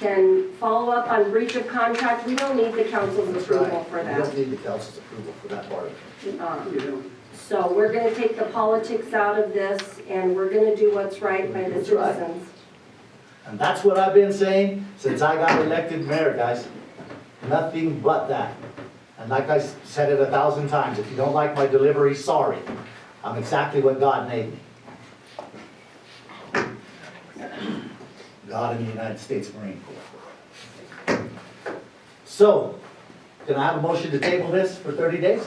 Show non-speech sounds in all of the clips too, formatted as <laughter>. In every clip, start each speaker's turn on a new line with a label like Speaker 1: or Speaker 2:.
Speaker 1: can follow up on breach of contract. We don't need the council's
Speaker 2: That's
Speaker 1: approval
Speaker 2: right.
Speaker 1: for
Speaker 2: You
Speaker 1: that.
Speaker 2: don't need the council's approval for that part.
Speaker 1: Um, So we're gonna take the politics out of this, and we're gonna do what's right by the
Speaker 2: That's right.
Speaker 1: citizens.
Speaker 2: And that's what I've been saying since I got elected mayor, guys. Nothing but that. And like I s- said it a thousand times, if you don't like my delivery, sorry. I'm exactly what God made me. God in the United States Marine Corps. So, can I have a motion to table this for 30 days?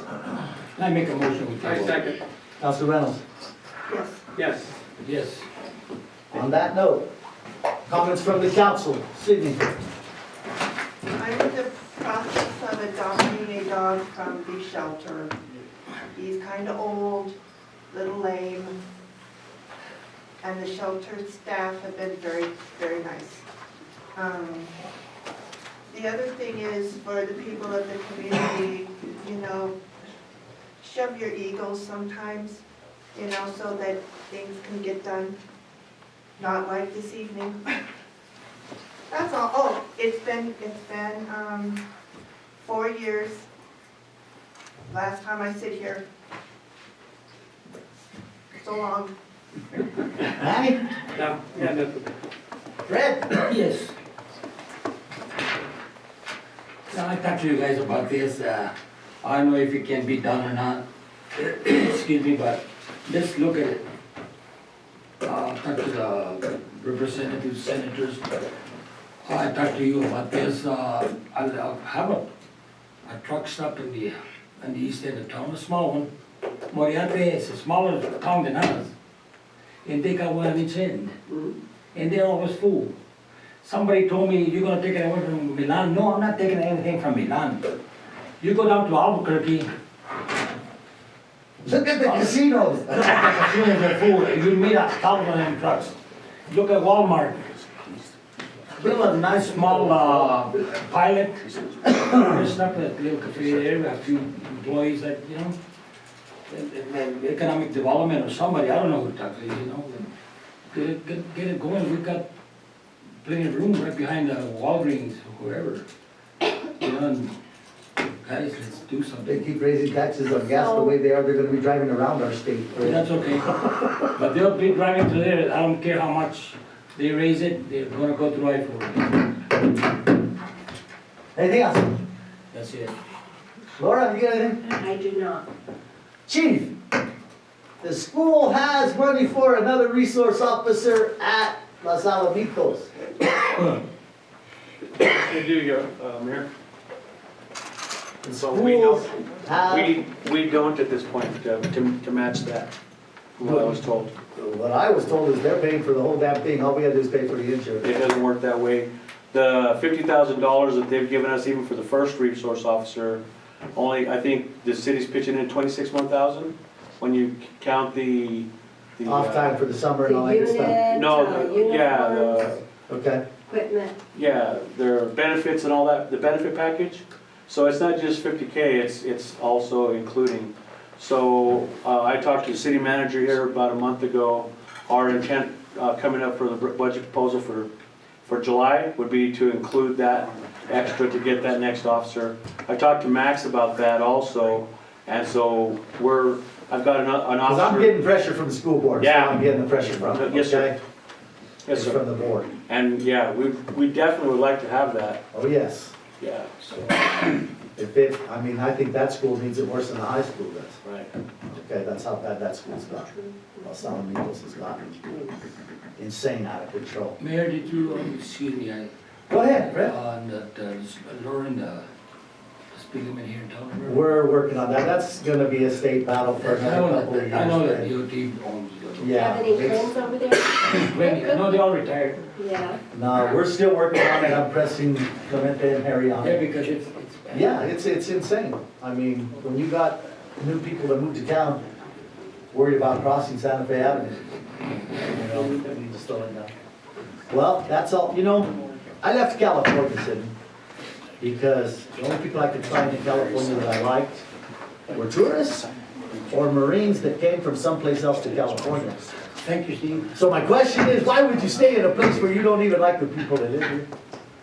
Speaker 3: I make a motion with
Speaker 4: I second,
Speaker 2: Council Reynolds,
Speaker 4: yes.
Speaker 3: Yes.
Speaker 2: on that note, comments from the council, Sydney?
Speaker 5: I'm in the process of adopting a dog from the shelter. He's kind of old, little lame, and the shelter staff have been very, very nice. Um, The other thing is for the people of the community, you know, shove your egos sometimes, you know, so that things can get done. Not like this evening. That's all, oh, it's been, it's been, um, four years, last time I sit here. So long.
Speaker 2: Manny?
Speaker 4: No, yeah, that's,
Speaker 2: Fred?
Speaker 3: Yes. So I talked to you guys about this, uh, I don't know if it can be done or not, <coughs> excuse me, but let's look at it. Uh, I talked to the representatives, senators, I talked to you about this, uh, I'll, I'll have a, a truck stop in the, in the east end of town, a small one. Moriante is a smaller town than ours, and they got one on each end, and they're always full. Somebody told me, you're gonna take it away from Milan. No, I'm not taking anything from Milan. You go down to Albuquerque,
Speaker 2: Look at the
Speaker 1: Oh.
Speaker 2: casinos.
Speaker 3: look at the casinos are full, you meet a thousand of them trucks. Look at Walmart. Build a nice small, uh, pilot, there's not a little cafe there, a few employees that, you know, and- and- and economic development or somebody, I don't know who talks, you know, but get it, get, get it going, we've got plenty of room right behind the Walgreens, or whoever. You know, and guys, let's do
Speaker 2: They
Speaker 3: something.
Speaker 2: keep raising taxes on gas
Speaker 1: Oh.
Speaker 2: the way they are, they're gonna be driving around our state.
Speaker 3: That's okay, but they'll be driving to there, I don't care how much they raise it, they're gonna go to I four,
Speaker 2: Anything else?
Speaker 3: that's it.
Speaker 2: Laura, you got anything?
Speaker 1: I do not.
Speaker 2: Chief? The school has money for another resource officer at Los Alamitos.
Speaker 4: they do, your, uh, Mayor.
Speaker 2: The
Speaker 4: So Oh, we don't-
Speaker 2: schools have,
Speaker 4: We, we don't at this point, uh, to, to match that, from what I was told.
Speaker 2: what I was told is they're paying for the whole damn thing, all we gotta do is pay for the insurance.
Speaker 4: It doesn't work that way. The fifty thousand dollars that they've given us even for the first resource officer, only, I think the city's pitching in twenty-six one thousand, when you c- count the, the. uh,
Speaker 2: Off time for the summer
Speaker 1: The
Speaker 2: and all that good stuff.
Speaker 1: unit, uh,
Speaker 4: No, the- yeah, the,
Speaker 1: uniforms,
Speaker 2: Okay,
Speaker 1: equipment.
Speaker 4: yeah, their benefits and all that, the benefit package. So it's not just fifty K, it's, it's also including. So, uh, I talked to the city manager here about a month ago. Our intent, uh, coming up for the budget proposal for, for July would be to include that extra to get that next officer. I talked to Max about that also, and so we're, I've got an, an officer.
Speaker 2: cause I'm getting pressure from the school board, so
Speaker 4: Yeah.
Speaker 2: I'm getting the pressure from, okay?
Speaker 4: Yes, sir. Yes,
Speaker 2: It's
Speaker 4: sir.
Speaker 2: from the board,
Speaker 4: And, yeah, we, we definitely would like to have that,
Speaker 2: oh yes.
Speaker 4: yeah, so,
Speaker 2: If it, I mean, I think that school needs it worse than the high school does.
Speaker 4: right.
Speaker 2: Okay, that's how bad that school's gotten. Los Alamitos has gotten insane out of control.
Speaker 3: Mayor, did you, um, excuse me, I,
Speaker 2: Go ahead, Brett.
Speaker 3: on that, uh, lowering the speed limit here in town? remember?
Speaker 2: We're working on that. That's gonna be a state battle for
Speaker 3: I
Speaker 2: another
Speaker 3: know
Speaker 2: couple of
Speaker 3: that,
Speaker 2: years.
Speaker 3: I know that
Speaker 2: Brett.
Speaker 3: DOT owns
Speaker 1: Do you
Speaker 2: Yeah.
Speaker 1: have any
Speaker 2: it's-
Speaker 1: claims over there?
Speaker 3: it. When- No, they all retired.
Speaker 1: Yeah.
Speaker 2: No, we're still working on it. I'm pressing Clemente and Harry on
Speaker 3: Yeah,
Speaker 2: it.
Speaker 3: because it's, it's bad.
Speaker 2: Yeah, it's, it's insane. I mean, when you got new people that moved to town, worried about crossing Santa Fe Avenue. You know, we just don't know. Well, that's all, you know, I left California, Sidney, because the only people I could find in California that I liked were tourists or Marines that came from someplace else to California.
Speaker 3: Thank you, Steve.
Speaker 2: So my question is, why would you stay in a place where you don't even like the people that live here?